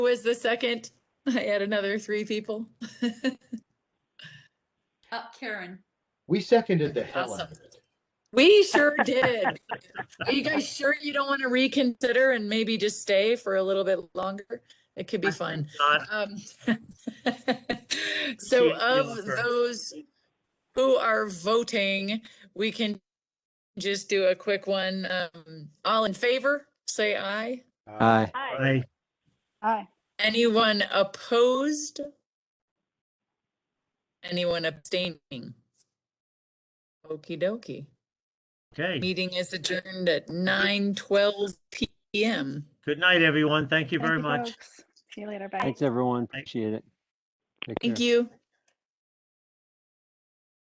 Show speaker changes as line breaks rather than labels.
Who was the second? I had another three people.
Uh, Karen,
We seconded the hell out of it.
We sure did. Are you guys sure you don't want to reconsider and maybe just stay for a little bit longer? It could be fun.
Not
Um, So
Appreciate the
of
offer.
those who are voting, we can just do a quick one. Um, all in favor, say aye.
Uh,
Aye.
I,
Aye.
Anyone opposed? Anyone abstaining? Okey dokey.
okay.
Meeting is adjourned at nine twelve PM.
Good night, everyone. Thank you
Thank
very much.
folks. See you later. Bye.
Thanks, everyone. Appreciate it. Take care.
Thank you.